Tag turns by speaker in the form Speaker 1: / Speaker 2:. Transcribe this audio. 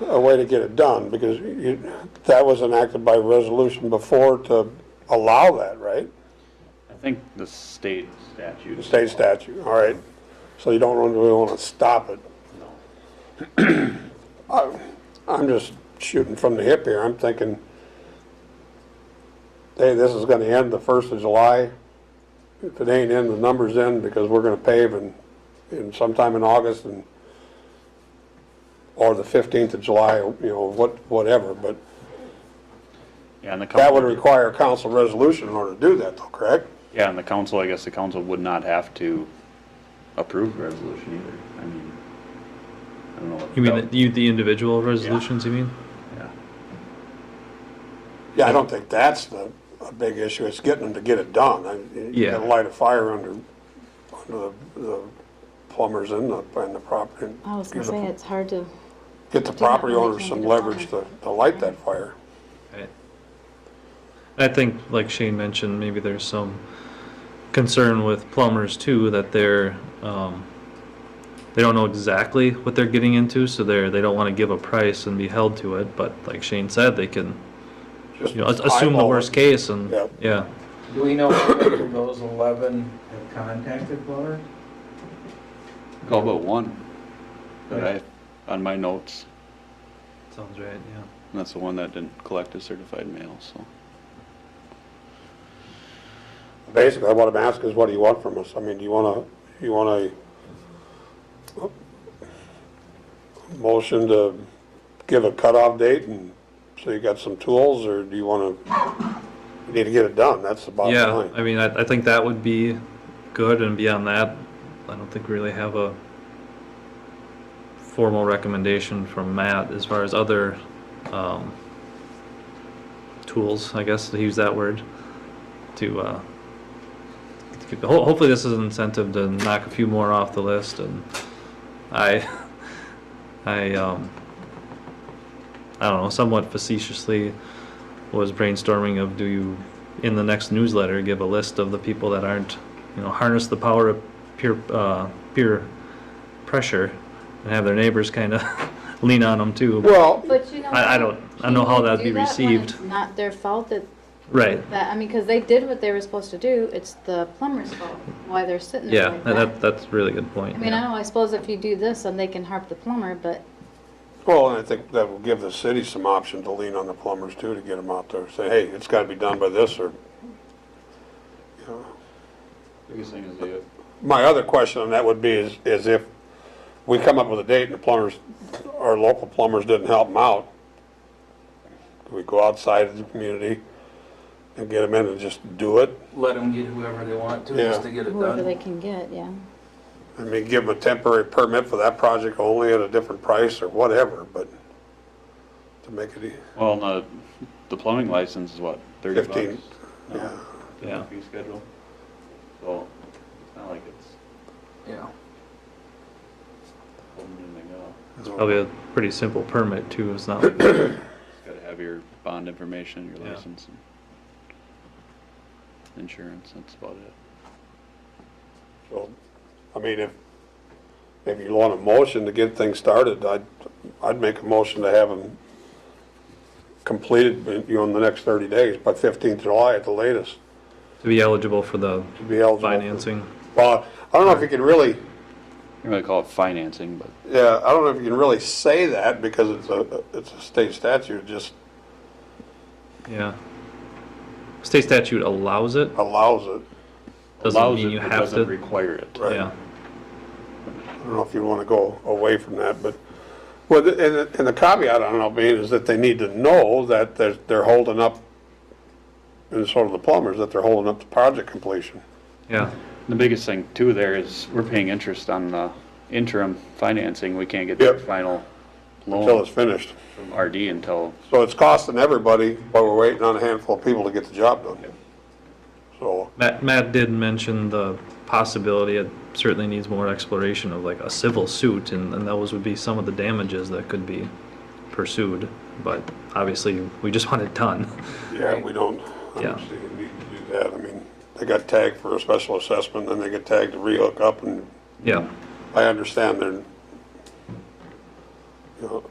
Speaker 1: a way to get it done, because you, that was enacted by resolution before to allow that, right?
Speaker 2: I think the state statute.
Speaker 1: State statute, all right. So you don't really want to stop it.
Speaker 2: No.
Speaker 1: I'm just shooting from the hip here. I'm thinking, hey, this is gonna end the first of July. If it ain't in, the number's in because we're gonna pave in, in sometime in August and, or the fifteenth of July, you know, what, whatever, but
Speaker 2: Yeah, and the council.
Speaker 1: that would require a council resolution in order to do that though, correct?
Speaker 2: Yeah, and the council, I guess the council would not have to approve the resolution either. I mean, I don't know. what
Speaker 3: You mean,
Speaker 2: that-
Speaker 3: the- you, the individual resolutions, you mean?
Speaker 2: yeah.
Speaker 1: Yeah, I don't think that's the, a big issue. It's getting them to get it done. I- You
Speaker 3: Yeah.
Speaker 1: gotta light a fire under, under the- the plumbers and the, and the property.
Speaker 4: I was gonna say, it's hard to,
Speaker 1: Get the
Speaker 4: Do not
Speaker 1: property
Speaker 4: really
Speaker 1: owners
Speaker 4: change
Speaker 1: some
Speaker 4: it at
Speaker 1: leverage to, to light that fire.
Speaker 3: Right. I think, like Shane mentioned, maybe there's some concern with plumbers too, that they're, um, they don't know exactly what they're getting into, so they're, they don't wanna give a price and be held to it, but like Shane said, they can,
Speaker 1: Just
Speaker 3: you know, as- assume the
Speaker 1: eyeball it.
Speaker 3: worst case and,
Speaker 1: Yeah.
Speaker 3: yeah.
Speaker 5: Do we know how many of those 11 have contacted Plummer?
Speaker 2: Call about one that I, on my notes,
Speaker 3: Sounds right, yeah.
Speaker 2: and that's the one that didn't collect a certified mail, so.
Speaker 1: Basically, what I'm asking is what do you want from us? I mean, do you wanna, you want a motion to give a cutoff date and, so you got some tools, or do you wanna, you need to get it done, that's the bottom
Speaker 3: Yeah,
Speaker 1: line.
Speaker 3: I mean, I, I think that would be good, and beyond that, I don't think we really have a formal recommendation from Matt as far as other, um, tools, I guess, to use that word, to, uh, to get- ho- hopefully this is an incentive to knock a few more off the list, and I, I, um, I don't know, somewhat facetiously was brainstorming of do you in the next newsletter give a list of the people that aren't you know harness the power of peer uh, peer pressure and have their neighbors kind of lean on them too
Speaker 1: Well,
Speaker 4: but you know.
Speaker 3: I- I don't- I don't know how that'd be
Speaker 4: you do that when
Speaker 3: received.
Speaker 4: it's Not their fault that,
Speaker 3: right
Speaker 4: that, I mean, because they did what they were supposed to do, it's the plumber's fault, why they're sitting there
Speaker 3: yeah
Speaker 4: like
Speaker 3: that, that
Speaker 4: that.
Speaker 3: that's a really good point
Speaker 4: I mean, I
Speaker 3: yeah.
Speaker 4: know, I suppose if you do this, then they can harp the plumber, but
Speaker 1: well, and I think that will give the city some option to lean on the plumbers too, to get them out there, say, hey, it's gotta be done by this, or, you know,
Speaker 2: Biggest thing is the,
Speaker 1: My other question on that would be is, is if we come up with a date and the plumbers, our local plumbers didn't help them out, do we go outside of the community and get them in and just do it?
Speaker 5: Let them get whoever they want to,
Speaker 1: Yeah.
Speaker 5: just to get it
Speaker 4: whoever they
Speaker 5: done.
Speaker 4: can get, yeah.
Speaker 1: I mean, give them a temporary permit for that project only at a different price or whatever, but to make it, e-
Speaker 2: well, the, the plumbing license is what, thirty bucks?
Speaker 1: Fifteen.
Speaker 2: No,
Speaker 1: yeah.
Speaker 3: Yeah.
Speaker 2: Fee schedule. So, it's not like it's
Speaker 5: Yeah.
Speaker 2: holding anything up.
Speaker 3: probably a pretty simple permit too it's not like-
Speaker 2: Just gotta have your bond information, your
Speaker 3: Yeah.
Speaker 2: license. and Insurance, that's about it.
Speaker 1: So, I mean, if, if you want a motion to get things started, I'd, I'd make a motion to have them completed, you know, in the next 30 days, by 15th July at the latest,
Speaker 3: to be eligible for the
Speaker 1: to be eligible. for-
Speaker 3: financing
Speaker 1: Well, I don't know if you can really,
Speaker 2: You're gonna call it financing, but
Speaker 1: yeah, I don't know if you can really say that because it's a, it's a state statute, it just
Speaker 3: yeah state statute allows it
Speaker 1: allows it.
Speaker 3: doesn't
Speaker 2: allows
Speaker 3: mean
Speaker 2: it,
Speaker 3: you
Speaker 2: but
Speaker 3: have
Speaker 2: doesn't
Speaker 3: to
Speaker 2: require it.
Speaker 1: Right.
Speaker 3: yeah
Speaker 1: I don't know if you want to go away from that, but, well, the- and, the- and the caveat on Albany is that they need to know that they're, they're holding up, and so do the plumbers, that they're holding up the project completion.
Speaker 3: yeah
Speaker 2: The biggest thing too there is we're paying interest on the interim financing. We can't get
Speaker 1: Yep.
Speaker 2: the final
Speaker 1: Until
Speaker 2: loan
Speaker 1: it's finished.
Speaker 2: from RD until
Speaker 1: So it's costing everybody, but we're waiting on a handful of people to get the job done. So,
Speaker 3: Matt, Matt did mention the possibility, it certainly needs more exploration of like a civil suit, and, and those would be some of the damages that could be pursued, but obviously, we just want it done.
Speaker 1: yeah, we don't, I
Speaker 3: Yeah.
Speaker 1: don't see a need to do that. I mean, they got tagged for a special assessment, then they get tagged to rehook up, and
Speaker 3: Yeah.
Speaker 1: I understand they're, you know,